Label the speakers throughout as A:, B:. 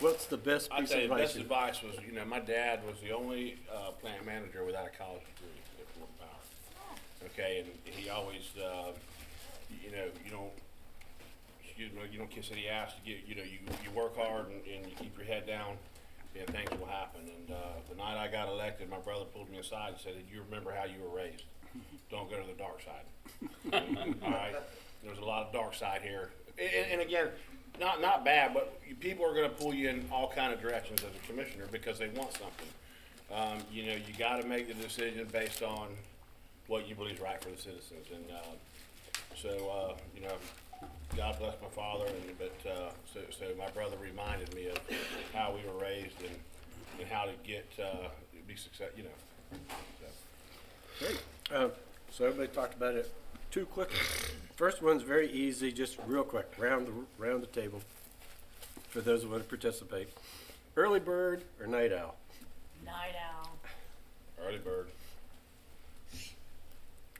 A: What's the best
B: I
A: piece
B: tell
A: of
B: you,
A: advice?
B: best
A: you-
B: advice was, you know, my dad was the only uh, plant manager without a college degree at Fort Power. Okay, and he always, uh, you know, you don't, you know, you don't kiss any ass. You get, you know, you, you work hard and, and you keep your head down, and things will happen. And uh, the night I got elected, my brother pulled me aside and said, "You remember how you were raised? Don't go to the dark side." All right, there's a lot of dark side here, and, and again, not not bad, but you- people are going to pull you in all kind of directions as a commissioner because they want something. Um, you know, you got to make the decision based on what you believe is right for the citizens, and uh, so uh, you know, God bless my father, and but uh, so so my brother reminded me of how we were raised and and how to get uh, be success. You know, so.
A: Great. Uh, So everybody talked about it too quick. First one's very easy, just real quick, round the, round the table for those who want to participate. Early bird or night owl?
C: Night owl.
B: early bird.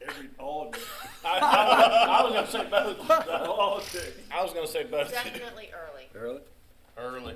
D: Every, all day,
B: I was gonna say both.
D: all day.
B: I was gonna say both.
C: Definitely early.
A: Early?
B: Early.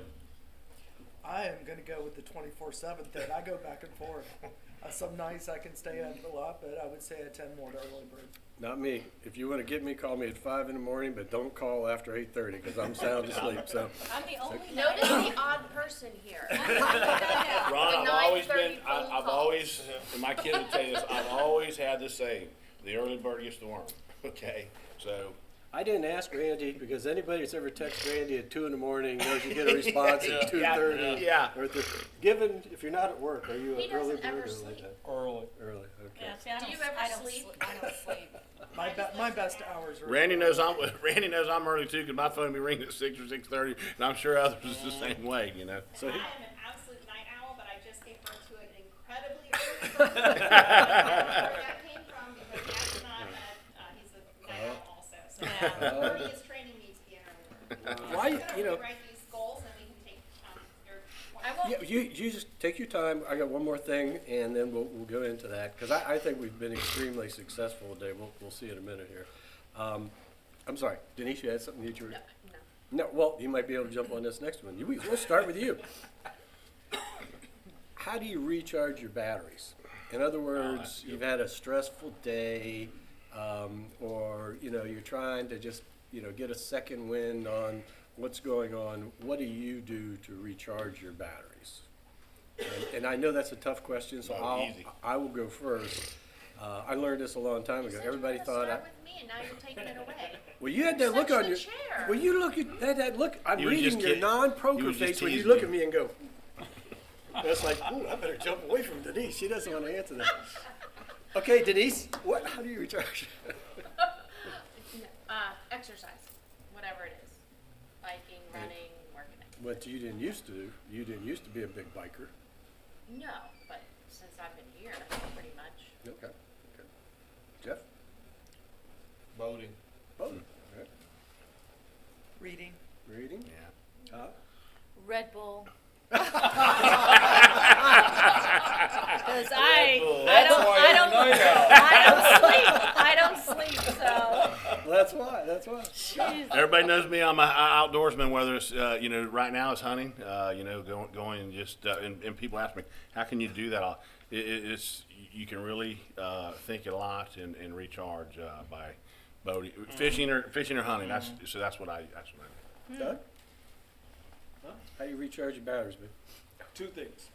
E: I am gonna go with the twenty four seven thing. I go back and forth. Uh, some nights I can stay up a lot, but I would say I tend more to early bird.
A: Not me. If you want to get me, call me at five in the morning, but don't call after eight thirty because I'm sound asleep, so.
F: I'm the only night
C: Notice the odd person here.
F: owl.
B: Ron, I've
C: The
B: always been.
C: 9:30
B: I,
C: phone
B: I've
C: call.
B: always, and my kids will tell you this. I've always had this saying: the early bird gets the worm. Okay, so
A: I didn't ask Randy because anybody that's ever texted Randy at two in the morning knows you get a response at two thirty.
B: yeah.
A: Or th- given, if you're not at work, are you
C: He
A: an early
C: doesn't ever
A: bird or late?
C: sleep.
A: night?
D: Early.
A: Early, okay.
F: Yeah, see, I
C: Do
F: don't-
C: you ever
F: I don't
C: sleep?
F: I don't sleep.
E: My be- my best hours are
B: Randy knows I'm. Randy knows I'm early too, 'cause my phone be ringing at six or six thirty, and I'm sure others is the same way. You know.
A: So he-
G: I am an absolute night owl, but I just gave birth to an incredibly early bird. I don't know where that came from because Jackson and I had, uh, he's a night owl also, so Birdie is training me to be an early bird.
A: Why,
G: So
A: Oh. you know,
G: we write these goals and we can take, um, your.
C: I won't
A: yeah, you, you just take your time. I got one more thing and then we'll, we'll go into that because I, I think we've been extremely successful today. We'll, we'll see in a minute here. Um, I'm sorry, Denise, you had something that you were? No, well, you might be able to jump on this next one. You, we- we'll start with you. How do you recharge your batteries? In other words, you've had a stressful day, um, or you know you're trying to just you know get a second wind on what's going on. What do you do to recharge your batteries? And, and I know that's a tough question, so
B: No,
A: I'll,
B: easy.
A: I will go first. Uh, I learned this a long time
C: You
A: ago.
C: said you
A: Everybody
C: were gonna
A: thought I.
C: start with me, and now you're taking it away.
A: Well, you had that look
C: Such
A: on
C: the
A: your.
C: chair.
A: Well, you look at that. that look, I'm
B: He was
A: reading
B: just
A: your
B: kid- he
A: non-poker
B: was just
A: face when you
B: teasing
A: look
B: you.
A: at me and go. That's like, ooh, I better jump away from Denise. She doesn't want to answer that. Okay, Denise, what? How do you recharge?
C: Uh, exercise, whatever it is. Biking, running, working out.
A: what you didn't used to do. You didn't used to be a big biker.
C: No, but since I've been here, pretty much.
A: Okay. okay. Jeff.
D: Voting.
A: Bowden. All right.
E: reading.
A: Reading.
B: Yeah.
A: Todd?
F: Red Bull. Because I, I
D: That's
F: don't,
D: why
F: I
D: you're
F: don't,
D: a night owl.
F: I don't sleep. I don't sleep. So,
A: Well, that's why. That's why.
F: jeez.
B: Everybody knows me. I'm an outdoorsman. Whether it's uh, you know right now it's hunting, uh, you know going, going and just uh, and, and people ask me how can you do that. I'll- It, it, it's you can really uh, think a lot and, and recharge uh, by boating, fishing or fishing or hunting. That's so that's what I that's what I do.
A: Doug. How do you recharge your batteries, man?
D: Two things.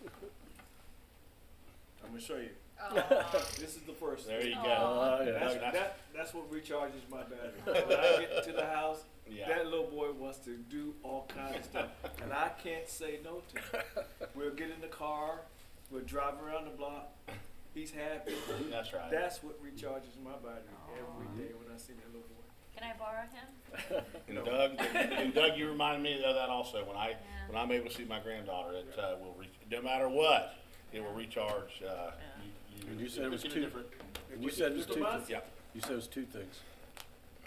D: I'm gonna show you.
C: Oh,
D: This is the first.
B: There
D: thing.
B: you
F: Aw.
B: go.
A: Oh,
D: That's,
A: yeah.
D: that, that's what recharges my battery. When I get to the house,
B: Yeah.
D: that little boy wants to do all kinds of stuff, and I can't say no to him. We'll get in the car, we'll drive around the block. He's happy.
B: That's right.
D: That's what recharges my battery
A: Oh.
D: every day when I see that little boy.
F: Can I borrow him?
B: And Doug, and Doug, you reminded me of that also. When I
F: Yeah.
B: when I'm able to see my granddaughter, it uh, will re- no matter what, it will recharge. Uh, you,
A: And you said it was
B: it's in a
A: two-
B: different.
A: And you said it was
D: Mr.
A: two.
D: Bonds?
A: Things.
B: Yeah.
A: You said it was two things.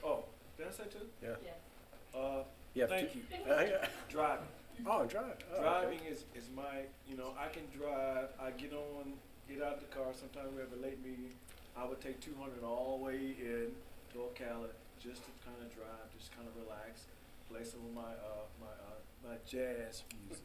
D: Oh, did I say two?
A: Yeah.
D: Uh,
A: You have
D: thank
A: two.
D: you.
A: Yeah.
D: Driving.
A: Oh, and drive. Oh, okay.
D: Driving is, is my, you know, I can drive, I get on, get out the car, sometimes we have a late meeting, I would take two hundred all the way in to Ocala, just to kinda drive, just kinda relax, play some of my, uh, my, uh, my jazz music.